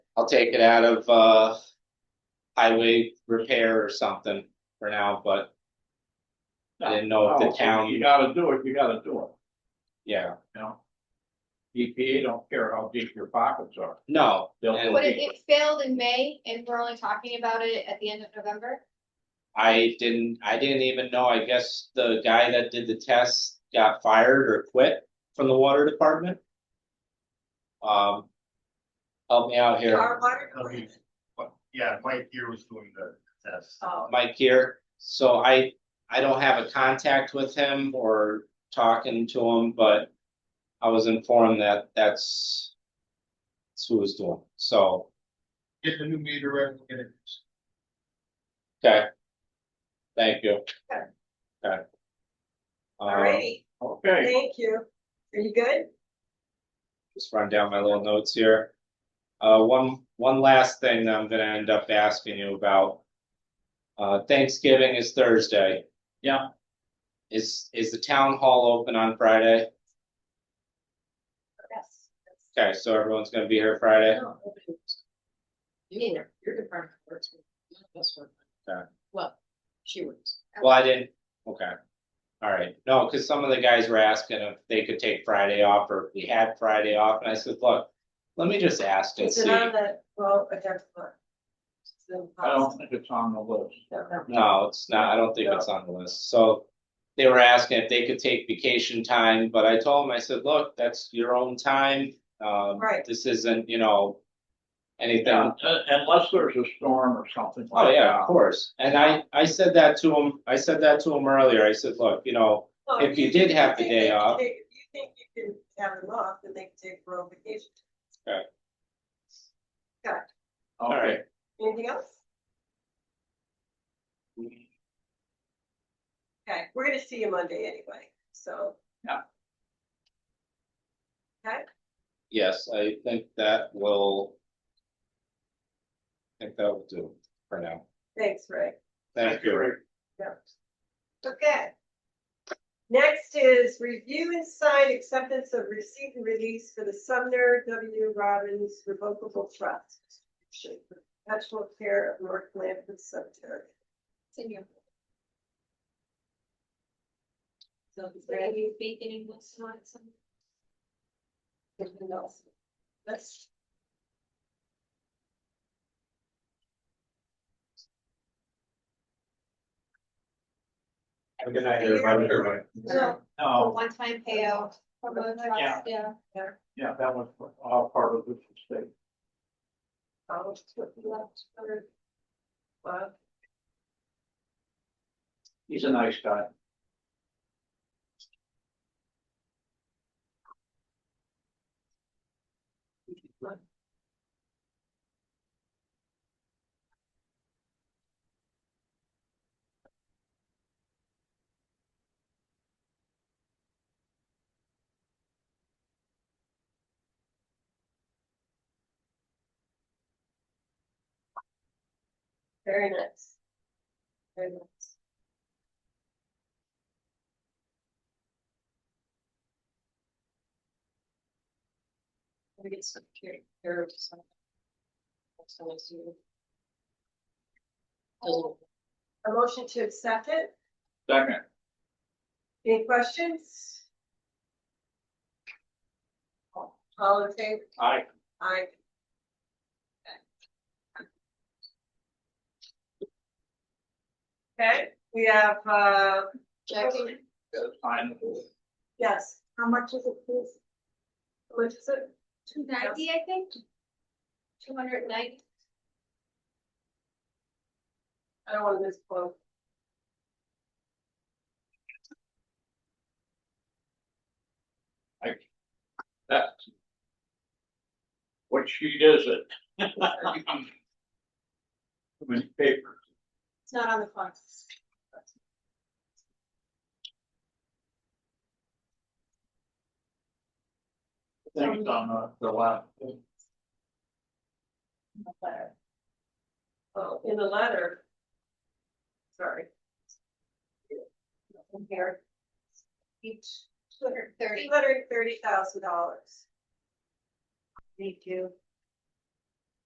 I'll take it out of, uh. Highway repair or something for now, but. I didn't know if Oh, the No, town- You gotta do it, you gotta do it, yeah, you know? EPA don't care how deep your pockets are. no, They'll- and But it, it failed in May and we're only talking about it at the end of November. I didn't, I didn't even know, I guess the guy that did the test got fired or quit from the water department. Um. Help me out here, Our water Tell me, what- yeah, Mike here was doing the test. Oh, Mike here, so I, I don't have a contact with him or talking to him, but. I was informed that that's. That's who was doing, it. so, Get the new meter in, get it. okay. Thank you. Okay. Okay. All Um, righty. Okay, thank you. Are you good? just run down my little notes here. Uh, one, one last thing that I'm gonna end up asking you about. Uh, Thanksgiving is Thursday. Yeah. Is, is the town hall open on Friday? yes. Okay, so everyone's gonna be here Friday? No, nobody was. You were, your department works, but none of us work. uh, Okay. Well, she works. Well, I didn't, okay. All right, no, cause some of the guys were asking if they could take Friday off or if we had Friday off, and I said, look, let me just ask and Is see. it on the, well, I don't know. It's the I don't think it's on the list. policy. No, it's not, I don't think it's on the list, so. They were asking if they could take vacation time, but I told them, I said, look, that's your own time, um, Right. this isn't, you know. Anything, Yeah, uh, Unless there's a storm or something oh like yeah, of that. course, and I, I said that to him, I said that to him earlier, I said, look, you know. Well, If you did have the think day they can off. take- If you think you can have them off, then they can take their own vacation. Okay, Anything else? Mm. Okay, we're gonna see you Monday anyway, so. Yes, I think that will. I Think that will do it for now, Thanks, Ray. thank you. Okay. Next is review and sign acceptance of receipt and release for the Sumner W. Robbins Revocable Trust. Perpetual care of North Lampard Cemetery. It's in your- So it's Are very- you baking in what's not some? everything else. That's, Good night, everybody. No, a No, one-time payout from a Yeah. trust, yeah. yeah, that was all part of this estate. I'll just put you up uh, for- Well, He's a nice guy. Very nice. Very nice. we get some care, care of some. That's always you. Doesn't- A motion to accept it? Second, Any questions? All in favor? I, Aye. Okay, we have, uh, Jackie, I'm, yes, how much is it, please? How much is it? Two ninety, I think? Two hundred and ninety? I don't want to miss quote. that. What sheet is it? Too many papers. It's not on the clock. Things on the- the left. Oh, in the letter. Sorry. In here. Each Two hundred and three thirty. hundred and thirty thousand dollars. Thank you.